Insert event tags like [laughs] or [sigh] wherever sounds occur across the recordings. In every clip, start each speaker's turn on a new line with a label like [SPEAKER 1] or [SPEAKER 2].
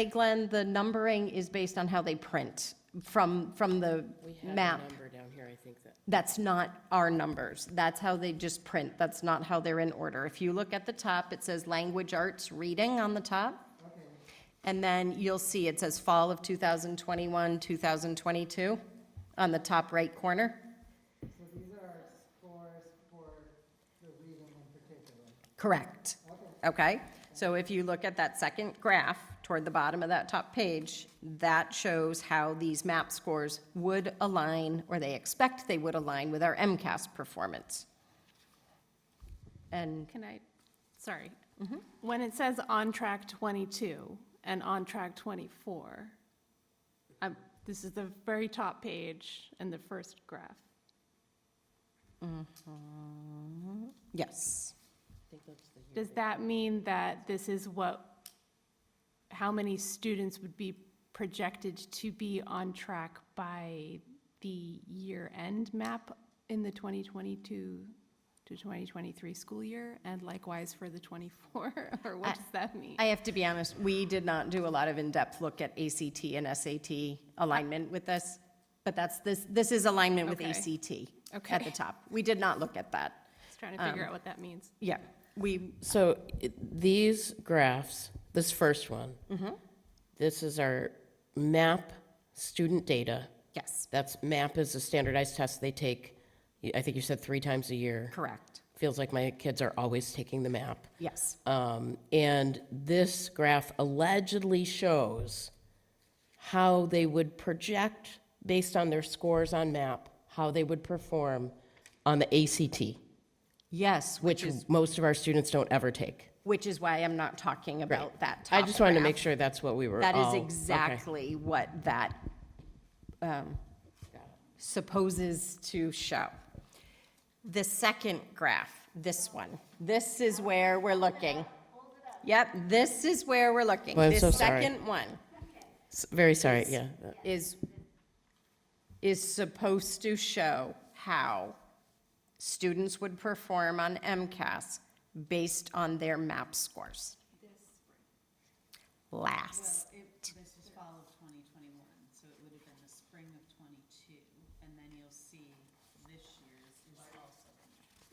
[SPEAKER 1] Hey, Glenn, the numbering is based on how they print from, from the map.
[SPEAKER 2] number down here, I think that.
[SPEAKER 1] That's not our numbers. That's how they just print. That's not how they're in order. If you look at the top, it says Language Arts Reading on the top. And then you'll see it says Fall of 2021, 2022 on the top right corner.
[SPEAKER 3] So these are scores for the reading in particular.
[SPEAKER 1] Correct. Okay? So if you look at that second graph toward the bottom of that top page, that shows how these MAP scores would align, or they expect they would align with our MCAS performance. And
[SPEAKER 4] Can I, sorry.
[SPEAKER 1] Mm-hmm.
[SPEAKER 4] When it says on track 22 and on track 24, um, this is the very top page and the first graph.
[SPEAKER 1] yes,
[SPEAKER 4] Does that mean that this is what, how many students would be projected to be on track by the year-end map in the 2022 to 2023 school year? And likewise for the 24, [laughs] or what does that mean?
[SPEAKER 1] I have to be honest, we did not do a lot of in-depth look at ACT and SAT alignment with this, but that's, this, this is alignment with
[SPEAKER 4] Okay.
[SPEAKER 1] ACT at
[SPEAKER 4] Okay.
[SPEAKER 1] the top. We did not look at that.
[SPEAKER 4] Just trying to
[SPEAKER 1] um,
[SPEAKER 4] figure out what that means.
[SPEAKER 1] Yeah, we,
[SPEAKER 2] So it- these graphs, this first one, this is our MAP student data.
[SPEAKER 1] yes,
[SPEAKER 2] That's, MAP is a standardized test they take, y- I think you said three times a year.
[SPEAKER 1] correct,
[SPEAKER 2] Feels like my kids are always taking the MAP.
[SPEAKER 1] yes.
[SPEAKER 2] Um, And this graph allegedly shows how they would project, based on their scores on MAP, how they would perform on the ACT,
[SPEAKER 1] Yes,
[SPEAKER 2] which most of our students don't ever take.
[SPEAKER 1] Which is why I'm not talking about that top
[SPEAKER 2] I just wanted to
[SPEAKER 1] graph.
[SPEAKER 2] make sure that's what we were
[SPEAKER 1] That is
[SPEAKER 2] all- okay.
[SPEAKER 1] exactly what that um, supposes to show. The second graph, this one, this is where we're looking. Yep, this is where we're looking.
[SPEAKER 2] Well, I'm so
[SPEAKER 1] This
[SPEAKER 2] sorry.
[SPEAKER 1] second one
[SPEAKER 2] S- Very sorry, yeah.
[SPEAKER 1] is, is supposed to show how students would perform on MCAS based on their MAP scores. Last.
[SPEAKER 5] Well, it, this was fall of twenty twenty-one, so it would have been the spring of twenty-two, and then you'll see this year's is also.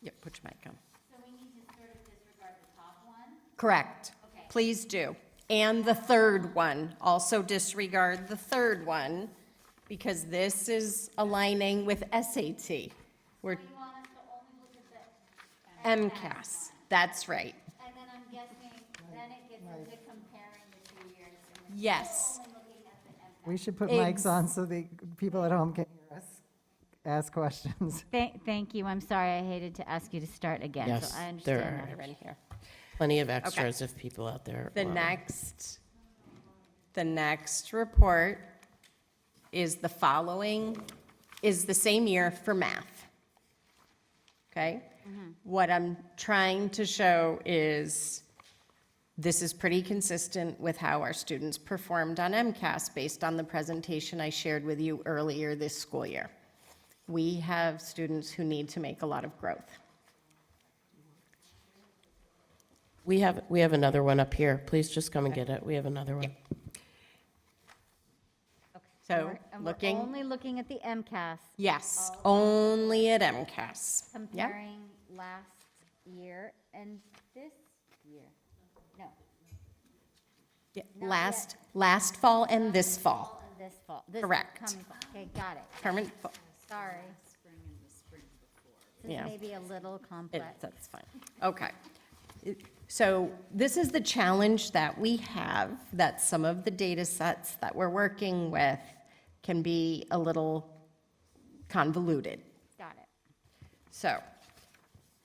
[SPEAKER 1] Yeah, put your mic on.
[SPEAKER 6] So we need to sort of disregard the top one?
[SPEAKER 1] Correct. Please do. And the third one, also disregard the third one, because this is aligning with SAT. We're
[SPEAKER 6] You want us to only look at the,
[SPEAKER 1] MCAS, that's right.
[SPEAKER 6] and then I'm guessing, then it gets into comparing the two years. and we're
[SPEAKER 1] Yes,
[SPEAKER 6] Only looking at the MCAS.
[SPEAKER 3] We should put mics on so the people at home can hear us ask questions.
[SPEAKER 7] Thank, thank you. I'm sorry. I hated to ask you to start again.
[SPEAKER 2] Yes,
[SPEAKER 7] so I
[SPEAKER 2] there
[SPEAKER 7] understand
[SPEAKER 2] are.
[SPEAKER 7] that.
[SPEAKER 1] they're in here.
[SPEAKER 2] Plenty of extras if people out there.
[SPEAKER 1] The
[SPEAKER 2] want-
[SPEAKER 1] next, the next report is the following, is the same year for math. Okay? What I'm trying to show is this is pretty consistent with how our students performed on MCAS based on the presentation I shared with you earlier this school year. We have students who need to make a lot of growth.
[SPEAKER 2] We have, we have another one up here. Please just come and get it. We have another one.
[SPEAKER 7] Okay.
[SPEAKER 1] So,
[SPEAKER 7] And we're- and we're
[SPEAKER 1] looking-
[SPEAKER 7] only looking at the MCAS,
[SPEAKER 1] Yes, only at MCAS. Yep.
[SPEAKER 7] comparing last year and this year. No,
[SPEAKER 1] Yeah,
[SPEAKER 7] Not
[SPEAKER 1] Last, last fall and this fall,
[SPEAKER 7] and this fall. this
[SPEAKER 1] Correct.
[SPEAKER 7] coming fall. Okay, got it.
[SPEAKER 1] current, fall.
[SPEAKER 7] Sorry. This
[SPEAKER 1] Yeah.
[SPEAKER 7] may be a little
[SPEAKER 1] It-
[SPEAKER 7] complex.
[SPEAKER 1] that's fine, okay. It- So this is the challenge that we have, that some of the data sets that we're working with can be a little convoluted.
[SPEAKER 7] Got it.
[SPEAKER 1] So,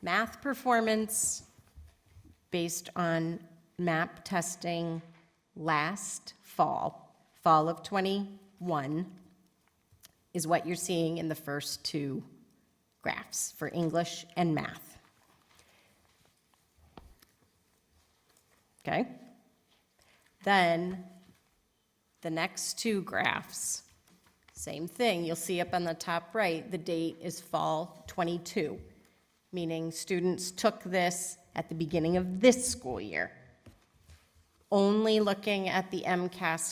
[SPEAKER 1] math performance based on MAP testing last fall, fall of '21, is what you're seeing in the first two graphs for English and math. Okay? Then, the next two graphs, same thing, you'll see up on the top right, the date is fall '22, meaning students took this at the beginning of this school year. only looking at the MCAS